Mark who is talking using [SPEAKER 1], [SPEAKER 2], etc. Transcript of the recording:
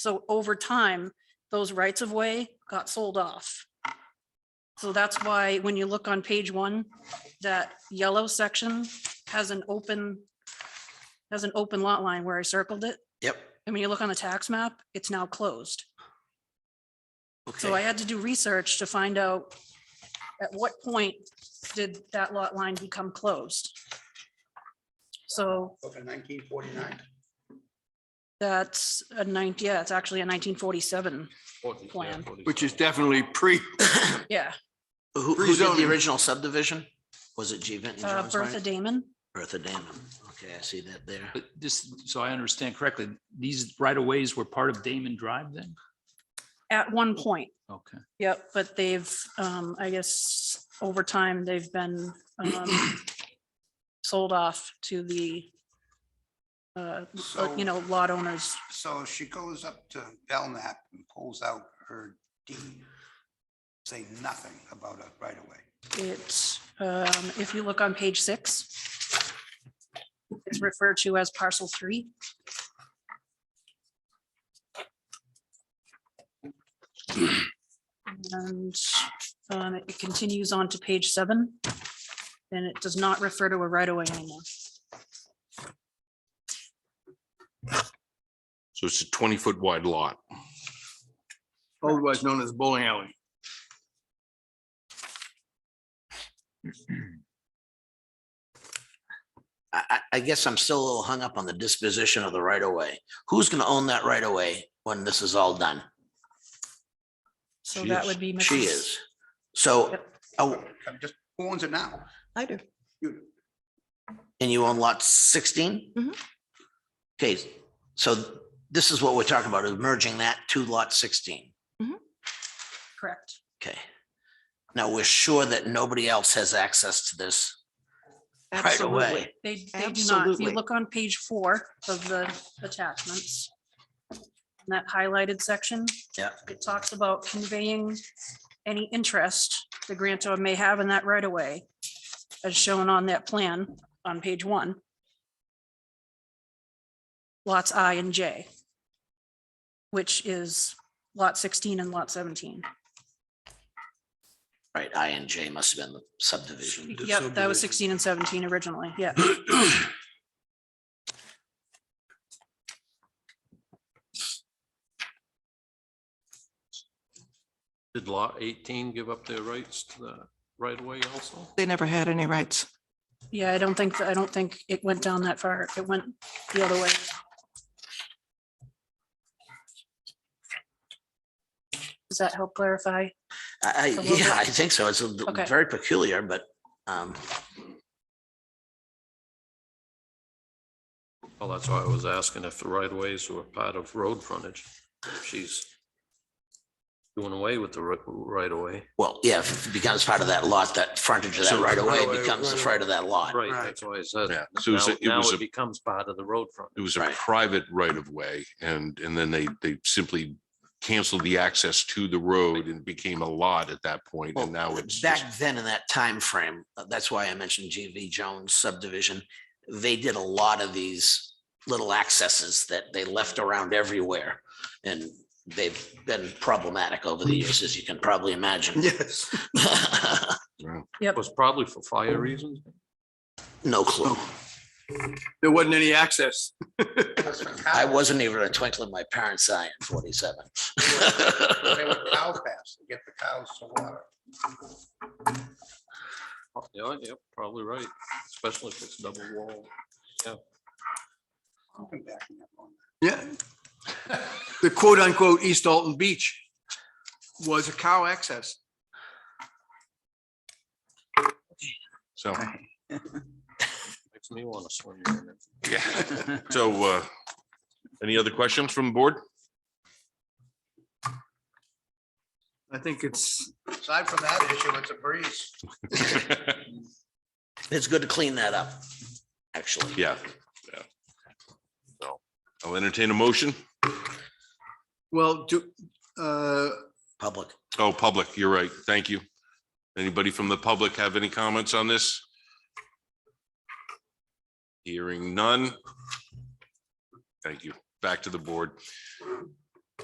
[SPEAKER 1] So over time, those rights of way got sold off. So that's why when you look on page one, that yellow section has an open, has an open lot line where I circled it.
[SPEAKER 2] Yep.
[SPEAKER 1] And when you look on the tax map, it's now closed. So I
[SPEAKER 2] Okay.
[SPEAKER 1] had to do research to find out at what point did that lot line become closed? So
[SPEAKER 2] Open nineteen forty-nine.
[SPEAKER 1] that's a ninety, yeah, it's actually a nineteen forty-seven plan.
[SPEAKER 3] Which is definitely pre,
[SPEAKER 1] Yeah,
[SPEAKER 2] Who, who did the
[SPEAKER 3] Rezoning.
[SPEAKER 2] original subdivision? Was it G Vinton
[SPEAKER 1] uh,
[SPEAKER 2] Jones
[SPEAKER 1] Bertha
[SPEAKER 2] Bryant?
[SPEAKER 1] Damon.
[SPEAKER 2] Bertha Damon. Okay, I see that there.
[SPEAKER 4] But this, so I understand correctly, these right of ways were part of Damon Drive then?
[SPEAKER 1] At one point,
[SPEAKER 4] Okay.
[SPEAKER 1] yep, but they've, um, I guess, over time, they've been, um, sold off to the, uh,
[SPEAKER 5] So-
[SPEAKER 1] you know, lot owners.
[SPEAKER 5] So she goes up to Belknap and pulls out her deed. Say nothing about it right away.
[SPEAKER 1] It's, um, if you look on page six, it's referred to as parcel three. And, um, it continues on to page seven. And it does not refer to a right of way anymore.
[SPEAKER 6] So it's a twenty foot wide lot.
[SPEAKER 3] otherwise known as bowling alley.
[SPEAKER 2] I, I, I guess I'm still a little hung up on the disposition of the right of way. Who's gonna own that right of way when this is all done?
[SPEAKER 1] So
[SPEAKER 6] She
[SPEAKER 1] that
[SPEAKER 6] is.
[SPEAKER 1] would be.
[SPEAKER 2] She
[SPEAKER 1] Mrs.
[SPEAKER 2] is. So,
[SPEAKER 1] Yep.
[SPEAKER 2] oh,
[SPEAKER 5] I'm just, who owns it now?
[SPEAKER 7] I do.
[SPEAKER 5] You.
[SPEAKER 2] and you own lot sixteen?
[SPEAKER 1] Mm-hmm.
[SPEAKER 7] Mhm.
[SPEAKER 2] Okay, so this is what we're talking about, is merging that to lot sixteen.
[SPEAKER 1] Correct.
[SPEAKER 2] Okay. Now, we're sure that nobody else has access to this right of
[SPEAKER 7] Absolutely.
[SPEAKER 2] way.
[SPEAKER 1] They, they do not. If you
[SPEAKER 7] Absolutely.
[SPEAKER 1] look on page four of the attachments. in That highlighted section.
[SPEAKER 2] Yeah.
[SPEAKER 1] It talks about conveying any interest the grantor may have in that right of way. As shown on that plan on page one. Lots I and J. Which is lot sixteen and lot seventeen.
[SPEAKER 2] Right, I and J must have been the subdivision.
[SPEAKER 1] Yep, that was sixteen and seventeen originally. Yeah.
[SPEAKER 6] Did lot eighteen give up their rights to the right of way also?
[SPEAKER 7] They never had any rights.
[SPEAKER 1] Yeah, I don't think, I don't think it went down that far. It went the other way. Does that help clarify?
[SPEAKER 2] I, I,
[SPEAKER 1] little
[SPEAKER 2] yeah,
[SPEAKER 1] bit.
[SPEAKER 2] I think so. It's a d-
[SPEAKER 1] Okay.
[SPEAKER 2] very peculiar, but, um,
[SPEAKER 6] Well, that's why I was asking if the right of ways were part of road frontage. If She's doing away with the ri- right of way.
[SPEAKER 2] well, yeah, if it becomes part of that lot, that frontage of that
[SPEAKER 6] So
[SPEAKER 2] right of way
[SPEAKER 6] right-of-way,
[SPEAKER 2] becomes the
[SPEAKER 6] right-of-way.
[SPEAKER 2] front of that lot.
[SPEAKER 6] Right,
[SPEAKER 5] Right.
[SPEAKER 6] that's why I said.
[SPEAKER 8] Yeah, so it was
[SPEAKER 6] Now
[SPEAKER 8] a- it
[SPEAKER 6] now
[SPEAKER 8] was
[SPEAKER 6] it
[SPEAKER 8] a-
[SPEAKER 6] becomes part of the road front.
[SPEAKER 8] It was a
[SPEAKER 2] Right.
[SPEAKER 8] private right of way and, and then they, they simply canceled the access to the road and became a lot at that point and now it's. just-
[SPEAKER 2] Back then in that time frame, uh, that's why I mentioned GV Jones subdivision. They did a lot of these little accesses that they left around everywhere. And they've been problematic over the years, as you can probably imagine.
[SPEAKER 5] Yes.
[SPEAKER 6] It was probably for fire reasons.
[SPEAKER 2] No clue.
[SPEAKER 3] There wasn't any access.
[SPEAKER 2] I wasn't even a twinkle in my parents' eye in forty-seven.
[SPEAKER 5] They were cow paths to get the cows to water.
[SPEAKER 6] Yeah, yeah, probably right, especially if it's double walled.
[SPEAKER 5] I've been backing up on
[SPEAKER 3] Yeah. The quote unquote East Dalton Beach was a cow access.
[SPEAKER 8] So,
[SPEAKER 6] Makes me want to swim. in it.
[SPEAKER 8] yeah. So, uh, any other questions from the board?
[SPEAKER 3] I think it's,
[SPEAKER 5] that. Aside from that issue, it's a breeze.
[SPEAKER 2] It's good to clean that up, actually.
[SPEAKER 8] Yeah. yeah. So I'll entertain a motion.
[SPEAKER 3] well, do, uh,
[SPEAKER 2] Public.
[SPEAKER 8] Oh, public, you're right. Thank you. Anybody from the public have any comments on this? Hearing none. Thank you. Back to the board.